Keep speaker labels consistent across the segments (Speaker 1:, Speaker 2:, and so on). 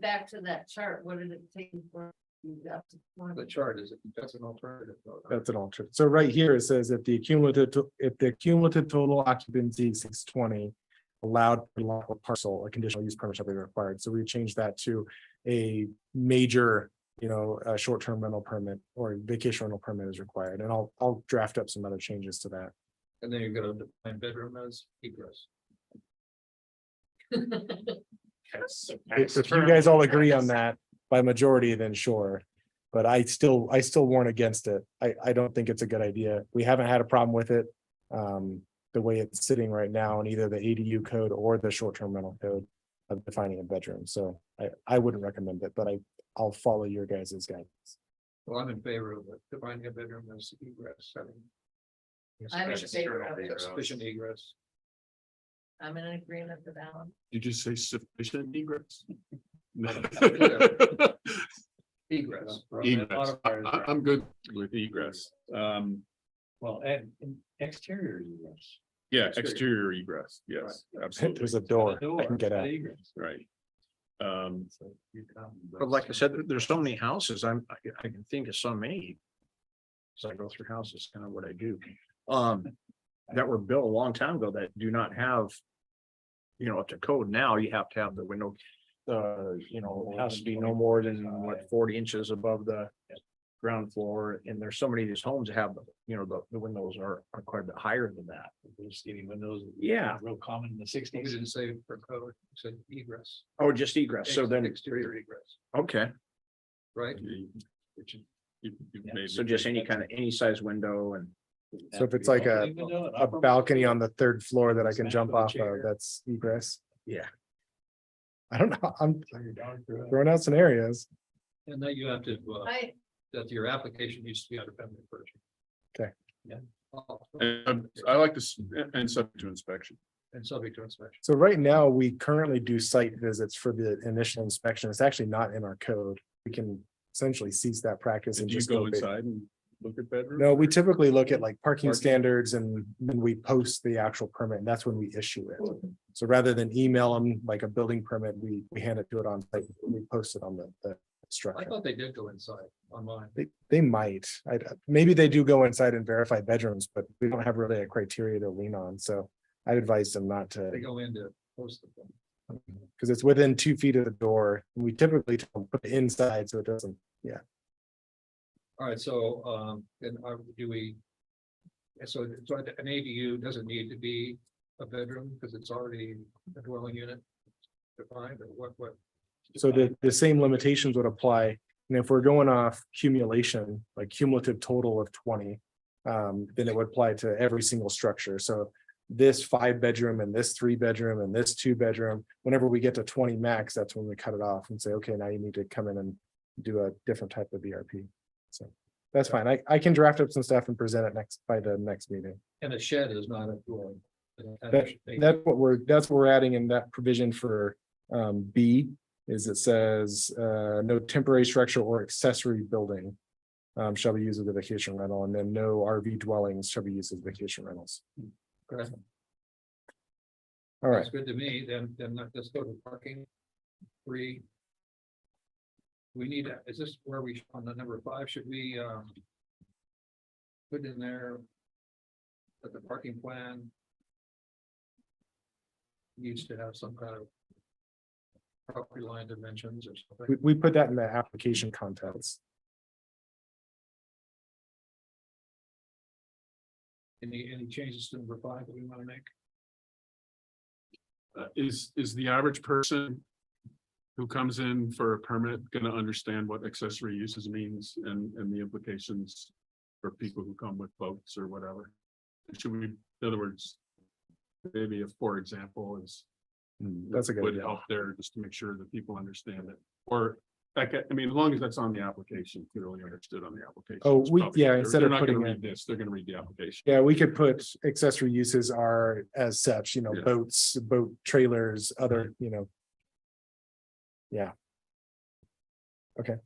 Speaker 1: back to that chart, what did it take for you got to
Speaker 2: The
Speaker 1: twenty?
Speaker 2: chart is, that's an alternative. though.
Speaker 3: That's an alternate. So right here, it says if the cumulative, to- if the cumulative total occupancy exceeds twenty. Allowed per lot or parcel, a conditional use permit shall be required. So we changed that to a major. You know, a short-term rental permit or vacation rental permit is required, and I'll, I'll draft up some other changes to that.
Speaker 2: And then you're gonna define bedroom as egress.
Speaker 3: If if you guys all agree on that by majority, then sure. But I still, I still warn against it. I, I don't think it's a good idea. We haven't had a problem with it. Um, the way it's sitting right now in either the ADU code or the short-term rental code of defining a bedroom. So I, I wouldn't recommend it, but I, I'll follow your guys' guidance.
Speaker 2: Well, I'm in favor of it, defining a bedroom as egress, I mean.
Speaker 1: I'm in
Speaker 2: Sufficient-
Speaker 1: favor of it.
Speaker 2: Sufficient egress.
Speaker 1: I'm in agreement with Alan.
Speaker 4: Did you say sufficient egress? No.
Speaker 2: Egress. Uh,
Speaker 4: Egress. I, I- I'm good with egress. Um,
Speaker 2: Well, and exterior egress.
Speaker 4: yeah,
Speaker 2: Exterior.
Speaker 4: exterior egress. Yes, absolutely.
Speaker 3: There's a door I can get out.
Speaker 4: Right. Um,
Speaker 2: But like I said, there- there's so many houses, I'm, I can- I can think of so many. As I go through houses, kind of what I do, um, that were built a long time ago that do not have. You know, up to code now, you have to have the window, uh, you know, it has to be no more than what forty inches above the. Ground floor, and there's so many of these homes that have, you know, the, the windows are, are quite a bit higher than that. Skinny windows. Yeah. Real common in the sixties. didn't say for code, said egress. Oh, just egress, so then. Exterior egress. Okay. Right?
Speaker 4: you- you- you
Speaker 2: Yeah,
Speaker 4: made
Speaker 2: So
Speaker 4: me-
Speaker 2: just any kind of, any size window and.
Speaker 3: So if it's like a, a balcony on the third floor that I can jump off of, that's egress.
Speaker 2: Yeah.
Speaker 3: I don't know. I'm throwing out scenarios.
Speaker 2: And that you have to, uh,
Speaker 1: I,
Speaker 2: that your application needs to be under family furniture.
Speaker 3: Okay.
Speaker 2: Yeah.
Speaker 4: And uh, I like this, and subject to inspection.
Speaker 2: And subject to inspection.
Speaker 3: So right now, we currently do site visits for the initial inspection. It's actually not in our code. We can essentially cease that practice
Speaker 4: Do
Speaker 3: and
Speaker 4: you
Speaker 3: just
Speaker 4: go
Speaker 3: go. ba-
Speaker 4: inside and look at bedrooms?
Speaker 3: No, we typically look at like parking
Speaker 4: Parking.
Speaker 3: standards and then we post the actual permit and that's when we issue it. So rather than email them like a building permit, we, we hand it to it on, site. we post it on the, the
Speaker 2: I
Speaker 3: structure.
Speaker 2: thought they did go inside online.
Speaker 3: They, they might, I, maybe they do go inside and verify bedrooms, but we don't have really a criteria to lean on, so I advise them not to.
Speaker 2: They go in to post the thing.
Speaker 3: Because it's within two feet of the door, and we typically tell them, put it inside, so it doesn't,
Speaker 2: All right, so, um, then are, do we? and So, so an ADU doesn't need to be a bedroom because it's already a dwelling unit defined or what, what?
Speaker 3: so the, the same limitations would apply. And if we're going off cumulation, like cumulative total of twenty, um, then it would apply to every single structure, so. This five bedroom and this three bedroom and this two bedroom, whenever we get to twenty max, that's when we cut it off and say, okay, now you need to come in and do a different type of VRP. So that's fine, I, I can draft up some stuff and present it next, by the next meeting.
Speaker 2: And a shed is not a dwelling.
Speaker 3: That's what we're, that's what we're adding in that provision for um B is it says uh no temporary structure or accessory building. Um shall be used as a vacation rental and then no RV dwellings shall be used as vacation rentals.
Speaker 2: Correct.
Speaker 3: All right,
Speaker 2: That's good to me, then, then let- let's go to parking. Three. We need, a- is this where we, on the number five, should we, um. Put in there. That the parking plan. Needs to have some kind of. Property line dimensions or
Speaker 3: we
Speaker 2: something,
Speaker 3: we put that in the application contents.
Speaker 2: any, any changes to number five that we wanna make?
Speaker 4: Uh, Is, is the average person who comes in for a permit gonna understand what accessory uses means and, and the implications for people who come with boats or whatever? Should we, in other words, maybe a for example is
Speaker 3: Hmm, That's a good
Speaker 4: would
Speaker 3: idea.
Speaker 4: help there just to make sure that people understand it. Or, like, I mean, as long as that's on the application, clearly understood on the application.
Speaker 3: Oh,
Speaker 4: it's
Speaker 3: we-
Speaker 4: probably-
Speaker 3: yeah,
Speaker 4: they're-
Speaker 3: instead of
Speaker 4: They're not gonna
Speaker 3: putting
Speaker 4: read this, they're gonna read the application.
Speaker 3: Yeah, we could put accessory uses are as such, you know,
Speaker 4: Yeah.
Speaker 3: boats, boat trailers, other, you know. Yeah. Okay.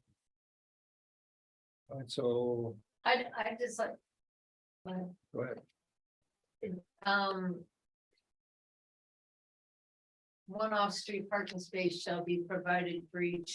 Speaker 2: Alright, so,
Speaker 1: I, I just like. well,
Speaker 2: go ahead,
Speaker 1: Um. One off-street parking space shall be provided for each